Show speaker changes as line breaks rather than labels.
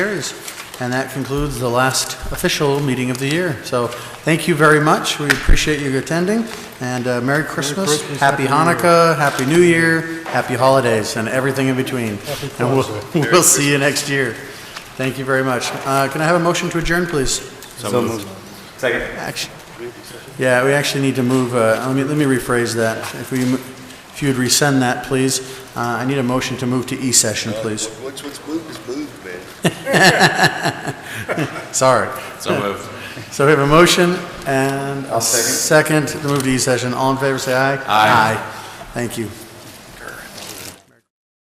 Carries. And that concludes the last official meeting of the year. So thank you very much. We appreciate you attending, and uh, Merry Christmas,
Christmas,
Happy
Happy New
Hanukkah, Happy New Year, Happy Holidays, and everything in between. And we'll, we'll see you next year. Thank you very much. Uh, Can I have a motion to adjourn, please?
So moved.
Act- Yeah, we actually need to move, uh, let me, let me rephrase that. If we, mo- if you'd resend that, please. Uh, I need a motion to move to E-session, please.
Once what's moved is moved, man.
Sorry.
So moved.
So we have a motion E and a second to move to E-session. All in favor, say aye. Aye. Thank you.